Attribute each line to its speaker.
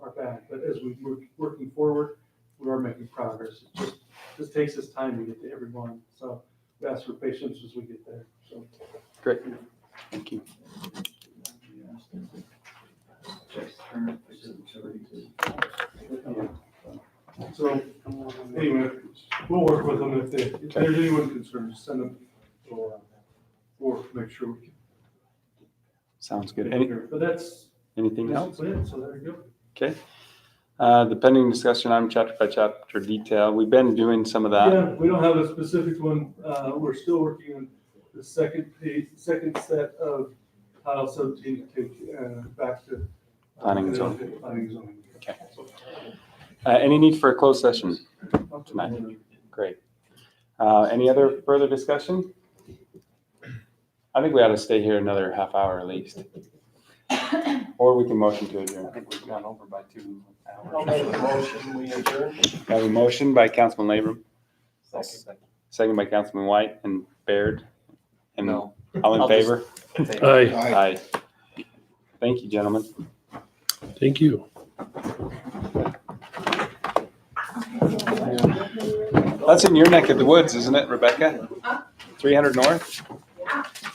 Speaker 1: back, but as we move, working forward, we are making progress. It just, this takes us time to get to everyone, so we ask for patience as we get there, so.
Speaker 2: Great. Thank you.
Speaker 1: So, anyway, we'll work with them if they, if there's anyone concerned, just send them, or, or make sure we can.
Speaker 2: Sounds good. Any-
Speaker 1: But that's,
Speaker 2: Anything else?
Speaker 1: that's it, so there you go.
Speaker 2: Okay. Uh, The pending discussion on chapter by chapter detail, we've been doing some of that.
Speaker 1: Yeah, we don't have a specific one. Uh, we're still working on the second page, second set of Title seventeen to take, uh, back to. uh,
Speaker 2: Planning and zoning.
Speaker 1: Planning and zoning.
Speaker 2: Okay. Uh, Any need for a closed session?
Speaker 1: Up to
Speaker 2: Tonight.
Speaker 1: the-
Speaker 2: Great. Uh, Any other further discussion? I think we ought to stay here another half hour at least. Or we can motion to
Speaker 3: I
Speaker 2: adjourn.
Speaker 3: think we've gone over by two
Speaker 4: I'll make a
Speaker 3: hours.
Speaker 4: motion, we adjourn.
Speaker 2: I have a motion by Councilman Labrum,
Speaker 3: Second.
Speaker 2: second by Councilman White and Baird. And
Speaker 3: No.
Speaker 2: all in
Speaker 3: I'll just-
Speaker 2: favor?
Speaker 5: Aye,
Speaker 2: Aye. Thank you, gentlemen.
Speaker 5: thank you.
Speaker 2: That's in your neck of the woods, isn't it, Rebecca? 300 North?